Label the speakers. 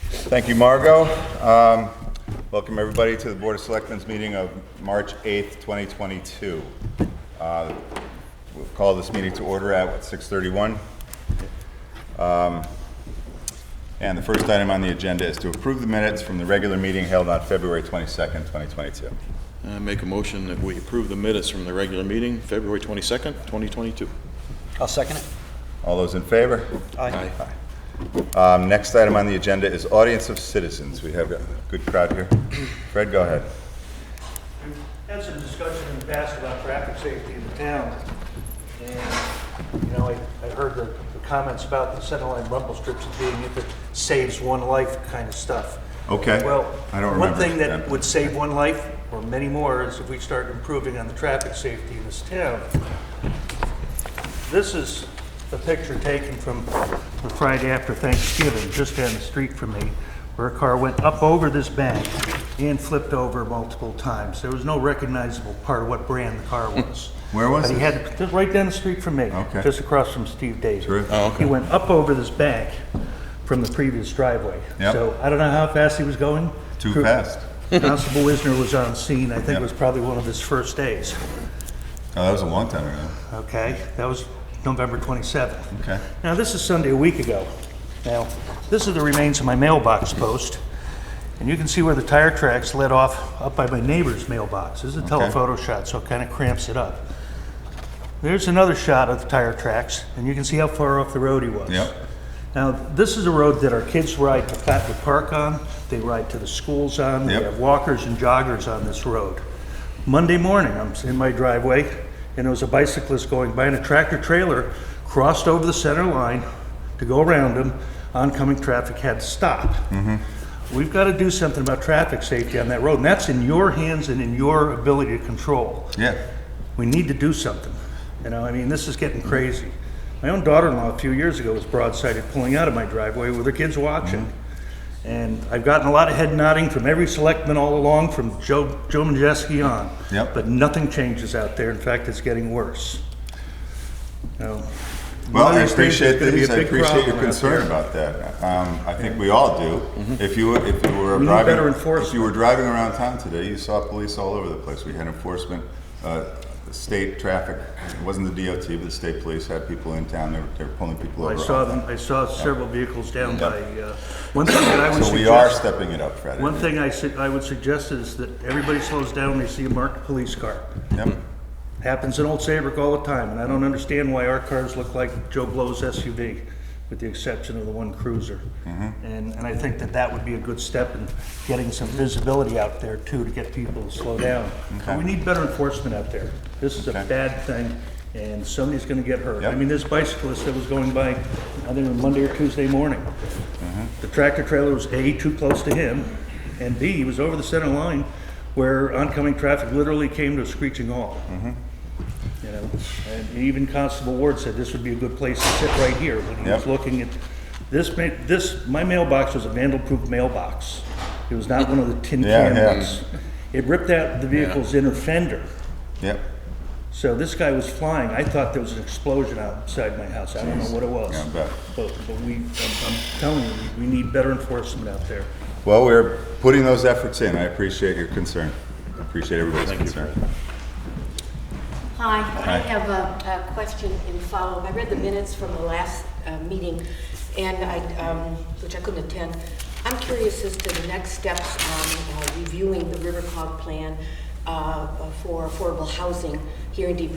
Speaker 1: Thank you, Margot. Um, Welcome, everybody, to the Board of Selectmen's meeting of March 8th, 2022. Uh, We'll call this meeting to order at, what, 6:31? Um, And the first item on the agenda is to approve the minutes from the regular meeting held on February 22nd, 2022.
Speaker 2: I make a motion that we approve the minutes from the regular meeting, February 22nd, 2022.
Speaker 3: I'll second it.
Speaker 1: All those in favor?
Speaker 2: Aye.
Speaker 1: Um, Next item on the agenda is audience of citizens. We have a good crowd here. Fred, go ahead.
Speaker 4: We've had some discussion in the past about traffic safety in the town. And, you know, I, I heard the, the comments about the center line rumble strips as being if it saves one life kind of stuff.
Speaker 1: Okay.
Speaker 4: Well,
Speaker 1: I don't
Speaker 4: one
Speaker 1: remember
Speaker 4: thing
Speaker 1: that.
Speaker 4: that would save one life, or many more, is if we start improving on the traffic safety in this town. This is a picture taken from the Friday after Thanksgiving, just down the street from me, where a car went up over this bank and flipped over multiple times. There was no recognizable part of what brand the car was.
Speaker 1: Where was
Speaker 4: But he
Speaker 1: it?
Speaker 4: had, just right down the street from me.
Speaker 1: Okay.
Speaker 4: Just across from Steve Davis.
Speaker 1: Sure.
Speaker 2: Oh, okay.
Speaker 4: He went up over this bank from the previous driveway.
Speaker 1: Yep.
Speaker 4: So I don't know how fast he was going.
Speaker 1: Too
Speaker 4: Cru-
Speaker 1: fast.
Speaker 4: Constable Wisner was on scene. I think
Speaker 1: Yep.
Speaker 4: it was probably one of his first days.
Speaker 1: Oh, that was a long time ago.
Speaker 4: Okay, that was November 27th.
Speaker 1: Okay.
Speaker 4: Now, this is Sunday a week ago. Now, this is the remains of my mailbox post, and you can see where the tire tracks led off up by my neighbor's mailbox. This is a telephoto shot, so it kind of cramps it up. There's another shot of the tire tracks, and you can see how far off the road he was.
Speaker 1: Yep.
Speaker 4: Now, this is a road that our kids ride to Flatwood Park on, they ride to the schools on, we
Speaker 1: Yep.
Speaker 4: have walkers and joggers on this road. Monday morning, I'm in my driveway, and there was a bicyclist going by, and a tractor trailer crossed over the center line to go around him. Oncoming traffic had to stop.
Speaker 1: Mm-hmm.
Speaker 4: We've got to do something about traffic safety on that road, and that's in your hands and in your ability to control
Speaker 1: Yeah.
Speaker 4: we need to do something. You know, I mean, this is getting crazy. My own daughter-in-law a few years ago was broadsided pulling out of my driveway with her kids watching.
Speaker 1: Mm-hmm.
Speaker 4: And I've gotten a lot of head nodding from every selectman all along, from Joe, Joe Majeski on.
Speaker 1: Yep.
Speaker 4: But nothing changes out there. In fact, it's getting worse. You know,
Speaker 1: Well,
Speaker 4: one of
Speaker 1: I
Speaker 4: these days
Speaker 1: appreciate
Speaker 4: there's gonna be
Speaker 1: these,
Speaker 4: a
Speaker 1: I
Speaker 4: big
Speaker 1: appreciate
Speaker 4: problem
Speaker 1: your
Speaker 4: out
Speaker 1: concern
Speaker 4: there. Mm-hmm.
Speaker 1: about that. Um, I think we all do. If you, were- if you were
Speaker 4: We need
Speaker 1: driving,
Speaker 4: better
Speaker 1: if you were driving around town today, you saw police all over the place. We had enforcement, uh, state traffic, it wasn't the DOT, but the state police had people in town, they were, they were pulling people
Speaker 4: I
Speaker 1: over.
Speaker 4: saw them, I saw several vehicles down
Speaker 1: Yeah.
Speaker 4: by, uh, one thing that I would
Speaker 1: So
Speaker 4: suggest.
Speaker 1: we are stepping it up, Fred.
Speaker 4: One thing I su- I would suggest is that everybody slows down when they see a marked police car.
Speaker 1: Yep.
Speaker 4: Happens in Old Saybrook all the time, and I don't understand why our cars look like Joe Blow's SUV, with the exception of the one cruiser.
Speaker 1: Mm-hmm.
Speaker 4: And, and I think that that would be a good step in getting some visibility out there too, to get people to slow down. But we need better enforcement out there. This is a
Speaker 1: Okay.
Speaker 4: bad thing, and somebody's gonna get hurt. I
Speaker 1: Yep.
Speaker 4: mean, this bicyclist that was going by, I think it was Monday or Tuesday morning, the tractor trailer was A, too close to him, and B, he was over the center line where oncoming traffic literally came to a screeching halt.
Speaker 1: Mm-hmm.
Speaker 4: You know, and even Constable Ward said this would be a good place to sit right here when he was
Speaker 1: Yep.
Speaker 4: looking at, this ma, this, my mailbox was a vandal-proof mailbox. It was not one of the tin
Speaker 1: Yeah, yeah.
Speaker 4: can ones. It ripped out the vehicle's inner fender.
Speaker 1: Yep.
Speaker 4: So this guy was flying. I thought there was an explosion outside my house. I don't know what it was.
Speaker 1: Yeah, I bet.
Speaker 4: But, but we, I'm, I'm telling you, we we need better enforcement out there.
Speaker 1: Well, we're putting those efforts in. I appreciate your concern. Appreciate everybody's concern.
Speaker 5: Hi,
Speaker 1: Hi.
Speaker 5: I have a a question in follow-up. I read the minutes from the last uh, meeting, and I, um, which I couldn't attend. I'm curious as to the next steps on uh, reviewing the River Cog plan uh, for affordable housing here in Deep